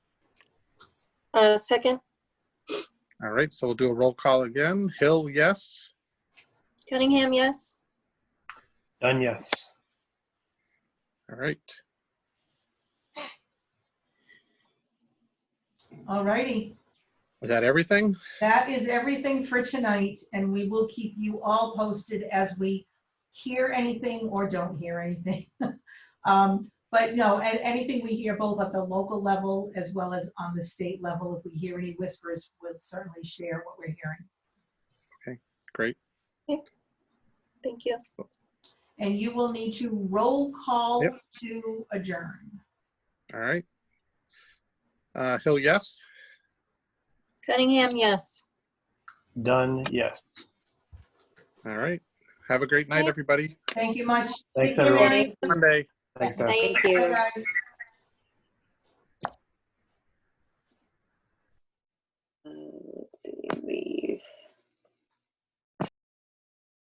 Uh, second, All right, so we'll do a roll call again. Hill, yes. Cunningham, yes. Done, yes. All right. All righty. Is that everything? That is everything for tonight, and we will keep you all posted as we hear anything or don't hear anything. Um, But no, and anything we hear both at the local level as well as on the state level, if we hear any whispers, we'll certainly share what we're hearing. Great. Thank you. And you will need to roll call Yep. to adjourn. All right. Uh, Hill, yes. Cunningham, yes. Done, yes. All right. Have a great night, Okay. everybody. Thank you much. Thanks, Thank you, everyone. Mary. Monday. Thanks, Deb. Thank Bye, you. guys. Uh, Let's see, leave.